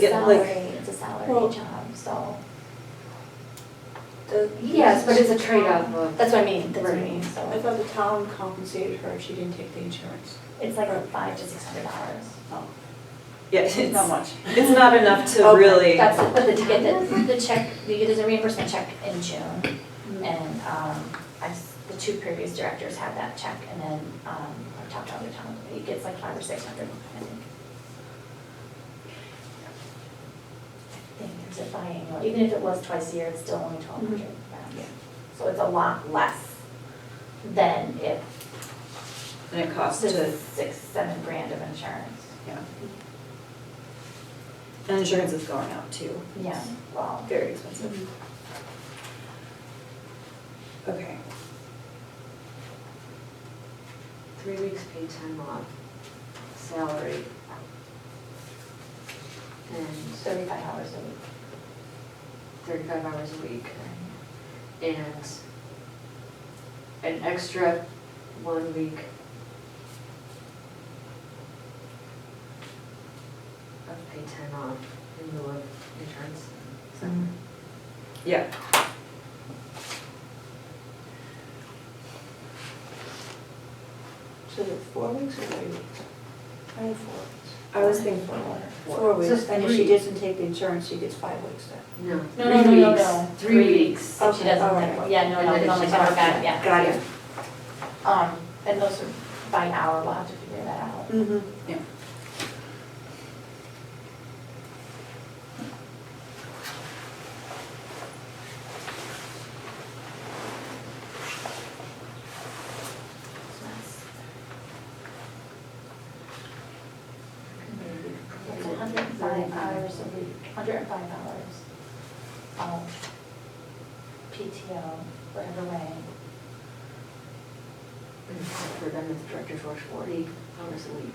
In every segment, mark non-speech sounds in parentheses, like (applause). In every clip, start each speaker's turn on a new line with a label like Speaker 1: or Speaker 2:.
Speaker 1: Yeah, like-
Speaker 2: salary, it's a
Speaker 1: Well-
Speaker 2: salary job, so.
Speaker 1: The-
Speaker 3: Yes, but it's a trade-off of,
Speaker 2: That's what I mean, that's what I
Speaker 3: Right.
Speaker 2: mean,
Speaker 1: I
Speaker 2: so.
Speaker 1: thought the town compensated her if she didn't take the insurance.
Speaker 2: It's like five to six hundred dollars.
Speaker 1: Oh,
Speaker 4: Yeah,
Speaker 1: it's
Speaker 4: it's,
Speaker 1: not much.
Speaker 4: it's not enough to
Speaker 1: Okay,
Speaker 4: really,
Speaker 2: That's, but the, you get the, the check, you get the reimbursement check in June, and, um, I, s- the two previous directors had that check, and then, um, I talked to other town, it gets like five or six hundred, I think. I think it's a biannual, even if it was twice a year, it's still only twelve hundred
Speaker 1: Yeah.
Speaker 2: pounds.
Speaker 1: Mm-hmm.
Speaker 2: So it's a lot less than if
Speaker 4: and it costs
Speaker 2: this
Speaker 4: to,
Speaker 2: is six, seven grand of insurance.
Speaker 4: yeah. And insurance is going up too.
Speaker 2: Yeah, well,
Speaker 4: Very expensive. Okay.
Speaker 3: three weeks paid time off, salary. And
Speaker 2: thirty-five hours a week.
Speaker 3: thirty-five hours a week, and an extra one week of paid time off in lieu of insurance. Is that-
Speaker 4: Yeah.
Speaker 1: So is it four weeks or three weeks? I had four weeks.
Speaker 4: I was thinking
Speaker 1: Four weeks, and if she
Speaker 3: three.
Speaker 1: doesn't take the insurance, she gets five weeks then.
Speaker 3: No.
Speaker 2: No, no, no,
Speaker 3: three
Speaker 2: no,
Speaker 3: weeks.
Speaker 2: no.
Speaker 3: Three weeks.
Speaker 2: If Oh, she
Speaker 1: Okay, all
Speaker 2: doesn't
Speaker 1: right.
Speaker 2: think, yeah, no,
Speaker 3: And
Speaker 2: no,
Speaker 3: then
Speaker 2: it's
Speaker 3: if
Speaker 2: only
Speaker 3: she's
Speaker 2: covered
Speaker 3: off,
Speaker 2: back, yeah.
Speaker 1: Got it.
Speaker 2: Um, and those are by hour, we'll have to figure that out.
Speaker 1: Mm-hmm.
Speaker 2: Mm-hmm. It's hundred and five hours a week, hundred and five hours Um, of PTO, whatever way.
Speaker 3: And For them, the directors work forty hours a week,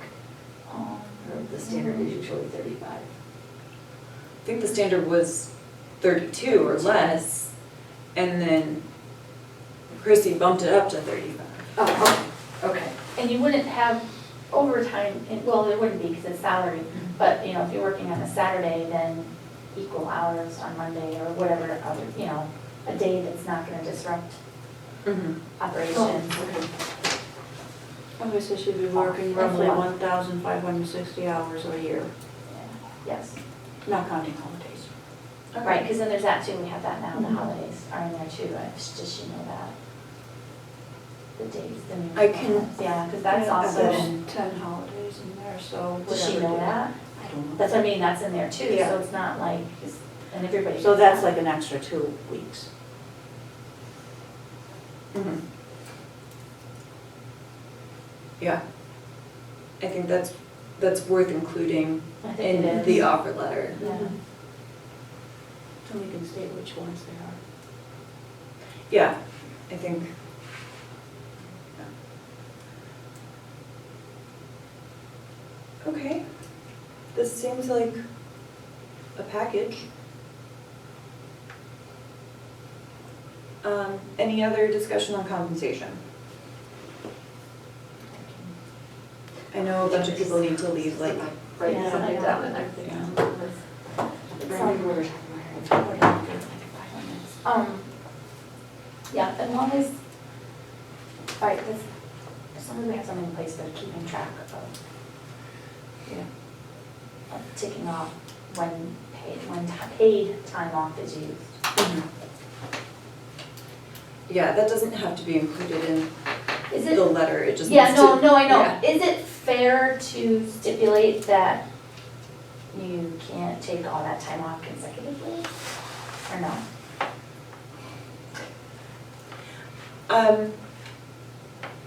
Speaker 2: Um,
Speaker 3: or the standard is usually thirty-five.
Speaker 4: I think the standard was thirty-two or less, and then Christie bumped it up to thirty-five.
Speaker 3: Oh, okay.
Speaker 2: And you wouldn't have overtime, in- well, there wouldn't be because it's salary,
Speaker 1: Mm-hmm.
Speaker 2: but, you know, if you're working on a Saturday, then equal hours on Monday or whatever other, you know, a day that's not gonna disrupt
Speaker 4: Mm-hmm.
Speaker 2: operations.
Speaker 3: Okay.
Speaker 1: Okay, so she'd be working roughly one thousand five hundred sixty hours a year,
Speaker 2: Yes,
Speaker 1: not counting holidays.
Speaker 2: right, because then there's that too, we have that now, the
Speaker 1: Mm-hmm.
Speaker 2: holidays are in there too, I just, just you know that. The days, the new.
Speaker 4: I can-
Speaker 2: ones, Yeah, because that's
Speaker 1: Yeah,
Speaker 2: also,
Speaker 1: There's ten holidays in there, so whatever.
Speaker 2: does she know
Speaker 1: day.
Speaker 2: that?
Speaker 1: I don't know.
Speaker 2: That's what I mean, that's in there too,
Speaker 1: Yeah.
Speaker 2: so it's not like, and everybody.
Speaker 1: So that's like an extra two weeks.
Speaker 4: Mhm. Yeah. I think that's, that's worth including
Speaker 2: I think
Speaker 4: in
Speaker 2: it
Speaker 4: the
Speaker 2: is.
Speaker 4: offer letter.
Speaker 2: Yeah.
Speaker 1: Mm-hmm. So we can state which ones they are.
Speaker 4: Yeah, I think. yeah. Okay, this seems like a package. Um, any other discussion on compensation? I know a bunch of people need to leave, like,
Speaker 3: Right,
Speaker 2: Yeah.
Speaker 3: something down and I think.
Speaker 2: Yeah.
Speaker 3: Right, we were talking about her.
Speaker 2: Um, yeah, as long as, all right, this, as long as we have something in place for keeping track of,
Speaker 1: Yeah.
Speaker 2: of ticking off when paid, when ti- paid time off is used.
Speaker 4: yeah, that doesn't have to be included in
Speaker 2: Is
Speaker 4: the
Speaker 2: it,
Speaker 4: letter, it just
Speaker 2: yeah,
Speaker 4: needs to.
Speaker 2: no, no, I know,
Speaker 4: yeah.
Speaker 2: is it fair to stipulate that you can't take all that time off consecutively? Or no?
Speaker 4: Um,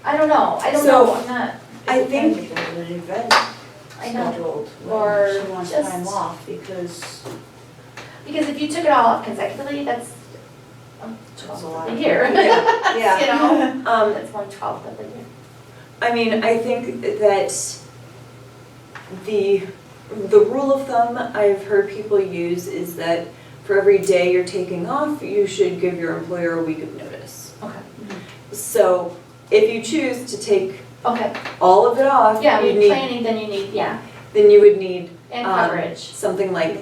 Speaker 2: I don't know, I don't
Speaker 4: So,
Speaker 2: know, I'm not,
Speaker 4: I think,
Speaker 1: If there's an
Speaker 4: (laughs)
Speaker 1: event
Speaker 2: I know.
Speaker 1: scheduled,
Speaker 2: Or
Speaker 1: when she wants
Speaker 2: just-
Speaker 1: time off because
Speaker 2: Because if you took it all up consecutively, that's um,
Speaker 1: That's
Speaker 2: twelve
Speaker 1: a lot.
Speaker 2: of the year.
Speaker 1: Yeah.
Speaker 2: (laughs) You
Speaker 1: (laughs)
Speaker 2: know,
Speaker 4: um,
Speaker 2: that's one twelfth of the year.
Speaker 4: I mean, I think that the, the rule of thumb I've heard people use is that for every day you're taking off, you should give your employer a week of notice.
Speaker 2: Okay.
Speaker 4: So if you choose to take
Speaker 2: Okay,
Speaker 4: all of it off,
Speaker 2: yeah,
Speaker 4: you
Speaker 2: with
Speaker 4: need,
Speaker 2: planning, then you need, yeah,
Speaker 4: then you would need
Speaker 2: and
Speaker 4: Um,
Speaker 2: coverage.
Speaker 4: something like